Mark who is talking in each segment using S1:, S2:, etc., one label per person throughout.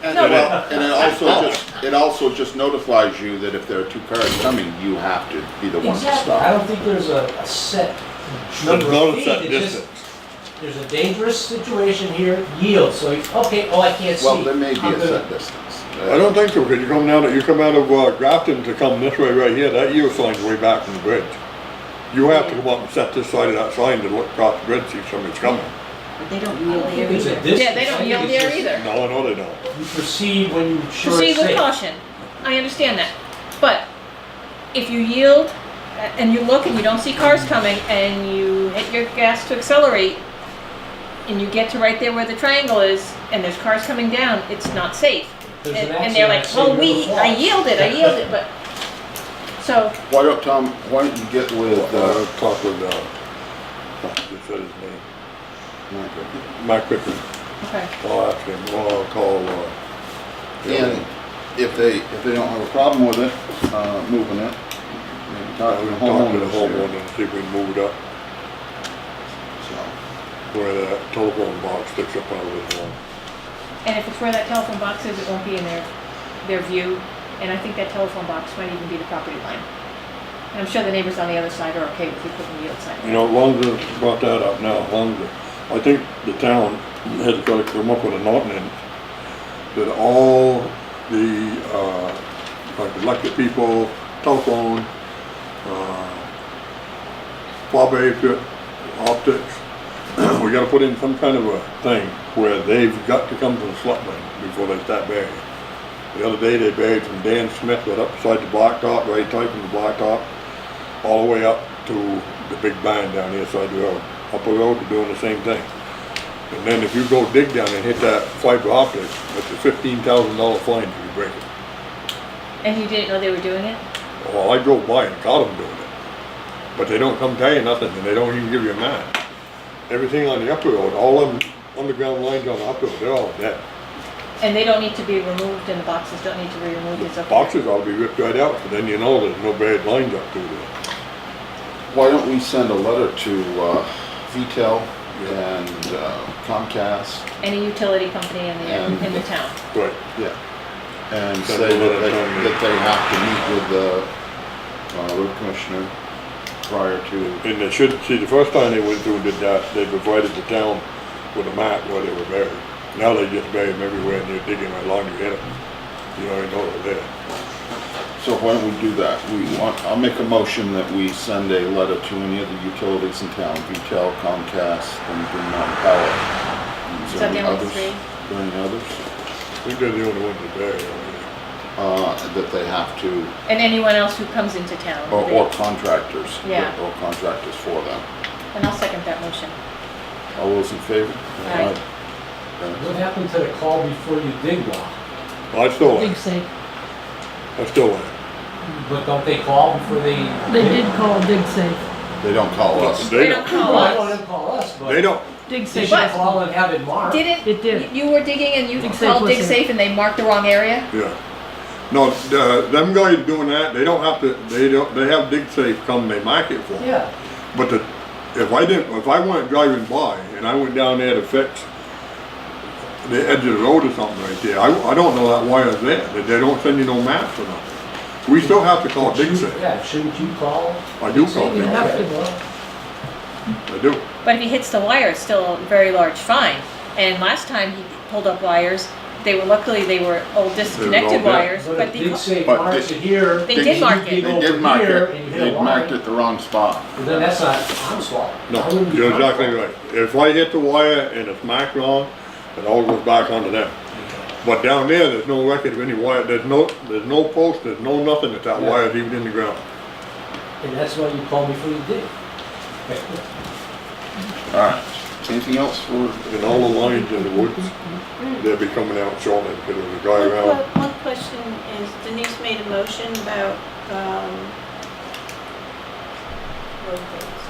S1: then,
S2: No,
S1: it-
S2: well-
S1: and it also just, it also just notifies you that if there are two cars coming, you have to be the one to
S2: Exactly, I
S1: stop.
S2: don't think there's a, a set
S3: But
S2: number of
S3: notice
S2: feet,
S3: that
S2: it's just,
S3: distance.
S2: there's a dangerous situation here, yield, so, you- okay, oh, I can't see.
S1: Well, there may be
S2: I'm
S1: a
S2: gonna-
S1: set distance. Uh,
S3: I don't think so, because you come down, you come out of uh, Grafton to come this way right here, that yield sign's way back from the bridge. You have to come up and set this side of that sign to look across the bridge, see if somebody's coming.
S4: But they don't
S2: I
S4: yield
S2: don't think
S4: there
S2: it's a
S4: either.
S2: distance.
S5: Yeah, they
S2: I
S5: don't
S2: think
S5: yield
S2: it's
S5: there
S2: just
S5: either.
S3: No, I know they don't.
S2: You proceed when you're sure
S5: Proceed
S2: it's
S5: with
S2: safe.
S5: caution. I understand that. But if you yield a- and you look and you don't see cars coming and you hit your gas to accelerate and you get to right there where the triangle is and there's cars coming down, it's not safe.
S2: There's
S5: And,
S2: an
S5: and they're like,
S2: accident,
S5: well, we,
S2: so
S5: I
S2: you never
S5: yielded, I
S2: fall."
S5: yielded, but, so,
S1: Why don't, Tom, why don't you get with,
S3: Uh,
S1: uh,
S3: talk with, uh, he said his name, Mike Pickard,
S5: okay.
S3: I'll ask him, or I'll call, uh.
S1: and if they, if they don't have a problem with it, uh, moving it, maybe talk to the
S3: I'll talk to the
S1: Uh, homeowners
S3: homeowner
S1: here.
S3: and see if we can move it up
S1: So,
S3: where that telephone box sticks up out of the wall.
S5: And if it's where that telephone box is, it won't be in their, their view. And I think that telephone box might even be the property line. And I'm sure the neighbors on the other side are okay with you putting the yield sign.
S3: You know, Lonza brought that up now, Lonza, I think the town has got to come up with an ordinance that all the, uh, like elected people, telephone, uh, Bob Apert, optics, we gotta put in some kind of a thing where they've got to come to the slut bin before they start burying. The other day, they buried from Dan Smith, right up beside the blacktop, right tight from the blacktop, all the way up to the big bind down here side of the road. uh, Up the road, they're doing the same thing. And then if you go dig down and hit that fiber optic, it's a fifteen thousand dollar fine if you break it.
S5: And you didn't know they were doing it?
S3: Well, I drove by and caught them doing it. But they don't come tell you nothing, and they don't even give you a map. Everything on the upper road, all them underground lines on the upper road, they're all dead.
S5: And they don't need to be removed and the boxes don't need to be removed, it's
S3: The
S5: up there.
S3: boxes ought to be ripped right out, so then you know there's no bad lines up through there.
S1: Why don't we send a letter to, uh, VTEL and uh, Comcast
S5: Any utility company in
S1: And-
S5: the, in the town.
S3: Right.
S1: Yeah, and
S3: Send
S1: say
S3: a
S1: that
S3: letter
S1: they,
S3: telling me.
S1: that they have to meet with the, uh, road commissioner prior to,
S3: And they should, see, the first time they went through and did that, they provided the town with a map where they were buried. Now they just bury them everywhere and they're digging right along your head. You don't even know they're there.
S1: so why don't we do that? We want, I'll make a motion that we send a letter to any of the utilities in town, VTEL, Comcast, and Green Mountain Power. Is
S5: Is
S1: there
S5: that
S1: any
S5: the only
S1: others?
S5: three?
S1: Are there any others?
S3: I think they're the only ones that bury them.
S1: Uh, that they have to,
S5: And anyone else who comes into town.
S1: or,
S5: they-
S1: Oh, or contractors.
S5: Yeah.
S1: Or contractors for them.
S5: And I'll second that motion.
S1: All those in favor?
S5: Aye.
S2: What happened to the call before you dig one?
S3: I still am,
S6: so.
S3: I still am.
S2: But don't they call before they?
S6: They
S2: dig?
S6: did call Dig Safe.
S1: They don't call us.
S5: They don't
S2: Well,
S5: call
S2: I don't let
S5: us.
S2: them call us, but.
S3: They don't.
S6: Dig
S2: They
S6: Safe.
S2: should call and have it marked.
S5: Didn't?
S6: It did.
S5: You you were digging and you
S6: Dig Safe
S5: called
S6: was
S5: Dig
S6: there.
S5: Safe and they marked the wrong area?
S3: Yeah. No, uh, them guys doing that, they don't have to, they don't, they have dig safe come, they mark it for 'em.
S2: Yeah,
S3: But the, if I didn't, if I went driving by and I went down there to fix the edge of the road or something right there, I, I don't know that wire's there, that they don't send you no maps or nothing. We still have to call Dixie.
S2: yeah, shouldn't you call?
S3: I do call
S6: You
S3: Dixie,
S6: have to
S2: Okay.
S6: go.
S3: I do.
S5: But if he hits the wire, it's still a very large fine. And last time he pulled up wires, they were, luckily, they were all disconnected
S3: dead.
S5: wires,
S2: But
S5: but
S2: it did
S5: the,
S2: say
S1: But
S2: mark it
S1: they-
S2: here.
S5: they
S2: and
S5: did
S2: you
S5: mark
S2: dig
S5: it.
S1: They
S2: over
S1: did mark
S2: here
S1: it,
S2: and you hit
S1: they
S2: a line.
S1: marked it the wrong spot.
S2: But Then that's not, I'm sorry.
S3: No, you're exactly right. If I hit the wire and it's marked wrong, it all goes back onto them. But down there, there's no record of any wire, there's no, there's no post, there's no nothing that that
S2: Yeah.
S3: wire's even in the ground.
S2: And that's why you call before you dig.
S1: All right, anything else for?
S3: And all the lines in the woods, they'll be coming out shortly because there's a guy around.
S7: One que- one question is Denise made a motion about, um, road bids.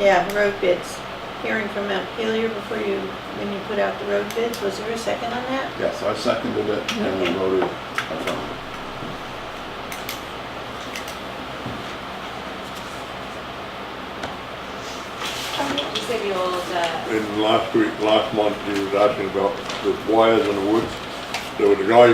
S7: Yeah, road bids. Hearing from Mount Pelier before you, when you put out the road bids, was there a second on that?
S1: Yes, I seconded it and we voted affirmative.
S8: You said the old, uh,
S3: And last week, last month, he was asking about the wires in the woods. there was a guy